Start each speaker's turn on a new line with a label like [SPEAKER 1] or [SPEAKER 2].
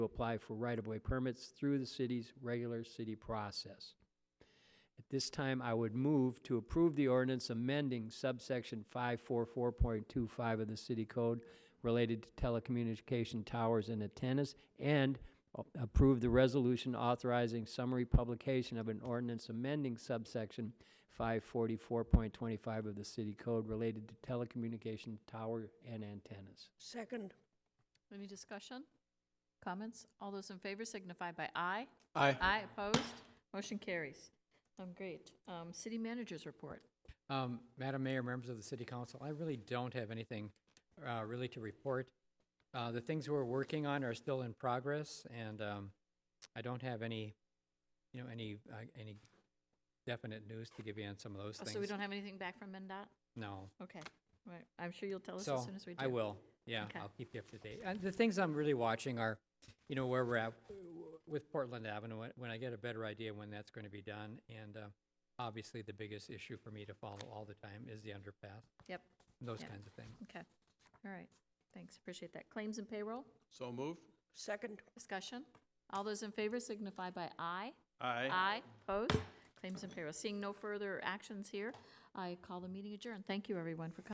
[SPEAKER 1] to apply for right-of-way permits through the city's regular city process. At this time, I would move to approve the ordinance amending subsection 544.25 of the city code related to telecommunication towers and antennas, and a- approve the resolution authorizing summary publication of an ordinance amending subsection 544.25 of the city code related to telecommunication tower and antennas.
[SPEAKER 2] Second,
[SPEAKER 3] Any discussion? Comments? All those in favor signify by aye.
[SPEAKER 4] Aye.
[SPEAKER 3] Aye opposed. Motion carries. Um, great. Um, city managers report.
[SPEAKER 4] Um, Madam Mayor, members of the City Council, I really don't have anything uh, really to report. Uh, The things we're working on are still in progress, and um, I don't have any, you know, any, uh, any definite news to give you on some of those
[SPEAKER 3] Oh,
[SPEAKER 4] things.
[SPEAKER 3] so we don't have anything back from MnDOT?
[SPEAKER 4] No.
[SPEAKER 3] Okay. All right. I'm sure you'll tell us as
[SPEAKER 4] So,
[SPEAKER 3] soon as we do.
[SPEAKER 4] I will, yeah,
[SPEAKER 3] Okay.
[SPEAKER 4] I'll keep you up to date. And the things I'm really watching are, you know, where we're at w- with Portland Avenue, when- when I get a better idea when that's going to be done. And uh, obviously, the biggest issue for me to follow all the time is the underpass,
[SPEAKER 3] Yep.
[SPEAKER 4] those
[SPEAKER 3] Yeah.
[SPEAKER 4] kinds of things.
[SPEAKER 3] Okay. All right. Thanks. Appreciate that. Claims and payroll.
[SPEAKER 5] So moved.
[SPEAKER 2] second,
[SPEAKER 3] Discussion. All those in favor signify by aye.
[SPEAKER 5] Aye.
[SPEAKER 3] Aye. Opposed. Claims and payroll. Seeing no further actions here, I call the meeting adjourned. Thank you, everyone, for coming.